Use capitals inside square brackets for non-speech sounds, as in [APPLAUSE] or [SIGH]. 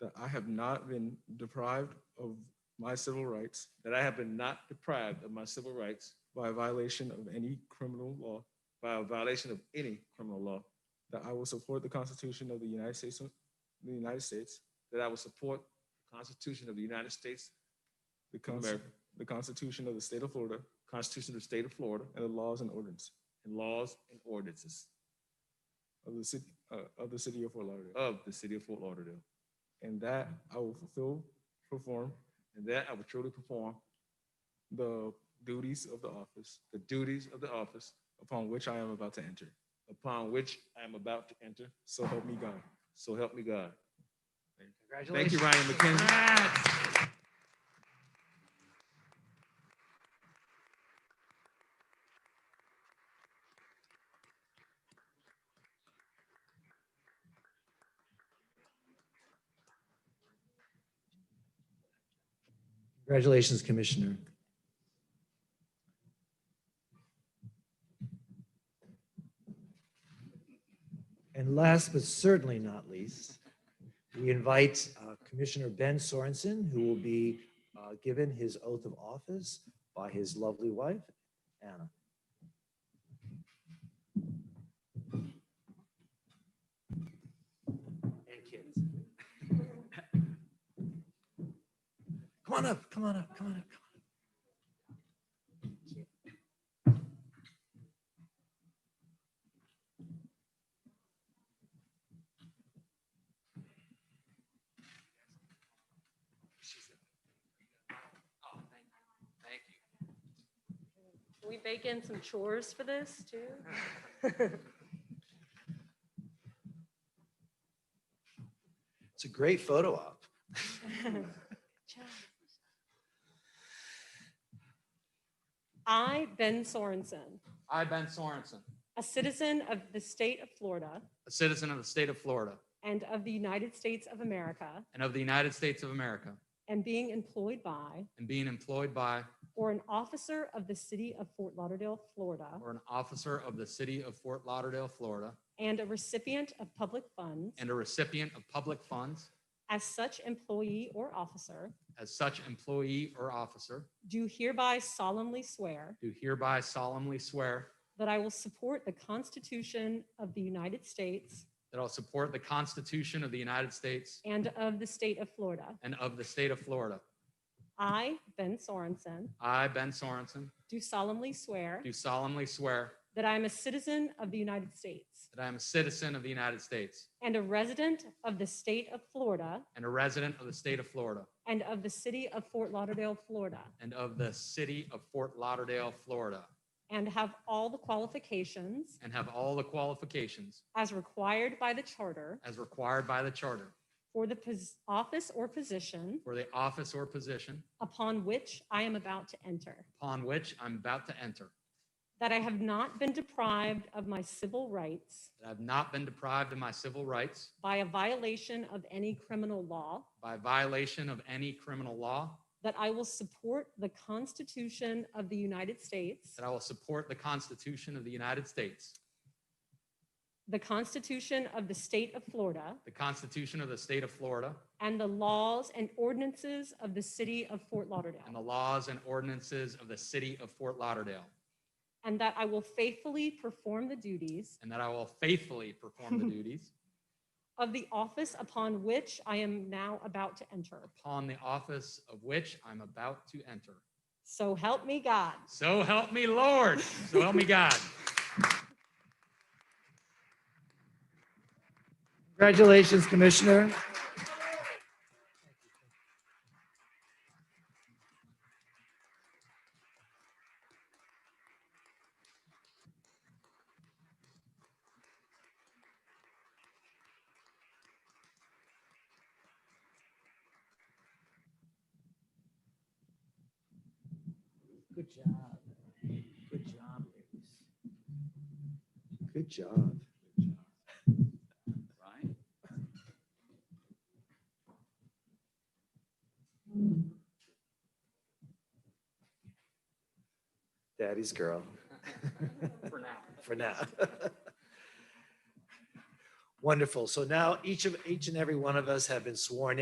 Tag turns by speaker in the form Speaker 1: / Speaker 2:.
Speaker 1: that I have not been deprived of my civil rights
Speaker 2: that I have been not deprived of my civil rights
Speaker 1: by violation of any criminal law,
Speaker 2: by a violation of any criminal law,
Speaker 1: that I will support the Constitution of the United States, the United States,
Speaker 2: that I will support the Constitution of the United States,
Speaker 1: the
Speaker 2: of
Speaker 1: Consti-
Speaker 2: America,
Speaker 1: the Constitution of the State of Florida,
Speaker 2: Constitution of the State of Florida,
Speaker 1: and the laws and ordinances
Speaker 2: and laws and ordinances
Speaker 1: of the city, uh, of the city of Fort Lauderdale.
Speaker 2: of the City of Fort Lauderdale,
Speaker 1: And that I will fulfill, perform
Speaker 2: and that I will truly perform
Speaker 1: the duties of the office
Speaker 2: the duties of the office
Speaker 1: upon which I am about to enter.
Speaker 2: upon which I am about to enter.
Speaker 1: So help me God.
Speaker 2: So help me God. Thank you,
Speaker 3: Congratulations.
Speaker 2: Ryan McKenzie.
Speaker 3: Congratulations, Commissioner. And last but certainly not least, we invite uh, Commissioner Ben Sorensen, who will be uh, given his oath of office by his lovely wife, Anna. And kids. Come on up, come on up, come on up, come on
Speaker 4: Can we bake in some chores for this too?
Speaker 3: up. It's a great photo op.
Speaker 4: I, Ben Sorensen,
Speaker 5: I, Ben Sorensen,
Speaker 4: a citizen of the state of Florida
Speaker 5: a citizen of the state of Florida
Speaker 4: and of the United States of America,
Speaker 5: and of the United States of America,
Speaker 4: and being employed by
Speaker 5: and being employed by
Speaker 4: or an officer of the city of Fort Lauderdale, Florida,
Speaker 5: or an officer of the city of Fort Lauderdale, Florida,
Speaker 4: and a recipient of public funds,
Speaker 5: and a recipient of public funds,
Speaker 4: as such employee or officer,
Speaker 5: as such employee or officer,
Speaker 4: do hereby solemnly swear
Speaker 5: do hereby solemnly swear
Speaker 4: that I will support the Constitution of the United States
Speaker 5: that I'll support the Constitution of the United States
Speaker 4: and of the state of Florida.
Speaker 5: and of the state of Florida.
Speaker 4: I, Ben Sorensen,
Speaker 5: I, Ben Sorensen,
Speaker 4: do solemnly swear
Speaker 5: do solemnly swear
Speaker 4: that I am a citizen of the United States
Speaker 5: that I am a citizen of the United States
Speaker 4: and a resident of the state of Florida
Speaker 5: and a resident of the state of Florida
Speaker 4: and of the city of Fort Lauderdale, Florida,
Speaker 5: and of the city of Fort Lauderdale, Florida,
Speaker 4: and have all the qualifications
Speaker 5: and have all the qualifications
Speaker 4: as required by the charter
Speaker 5: as required by the charter
Speaker 4: for the pos- office or position
Speaker 5: for the office or position
Speaker 4: upon which I am about to enter,
Speaker 5: upon which I'm about to enter,
Speaker 4: that I have not been deprived of my civil rights
Speaker 5: that I've not been deprived of my civil rights
Speaker 4: by a violation of any criminal law,
Speaker 5: by violation of any criminal law,
Speaker 4: that I will support the Constitution of the United States.
Speaker 5: that I will support the Constitution of the United States,
Speaker 4: The Constitution of the State of Florida
Speaker 5: the Constitution of the state of Florida,
Speaker 4: and the laws and ordinances of the City of Fort
Speaker 5: and the
Speaker 4: Lauderdale.
Speaker 5: laws and ordinances of the city of Fort Lauderdale,
Speaker 4: And that I will faithfully perform the duties
Speaker 5: and that I will faithfully perform the duties
Speaker 4: of the office upon which I am now about to enter.
Speaker 5: upon the office of which I'm about to enter.
Speaker 4: So help me God.
Speaker 5: So help me, Lord. So help me, God.
Speaker 3: Congratulations, Commissioner. Good job. Good job, ladies. Good job.
Speaker 6: Ryan?
Speaker 3: Daddy's girl.
Speaker 6: [LAUGHS] For now.
Speaker 3: for now. [LAUGHS] Wonderful. So now each of, each and every one of us have been sworn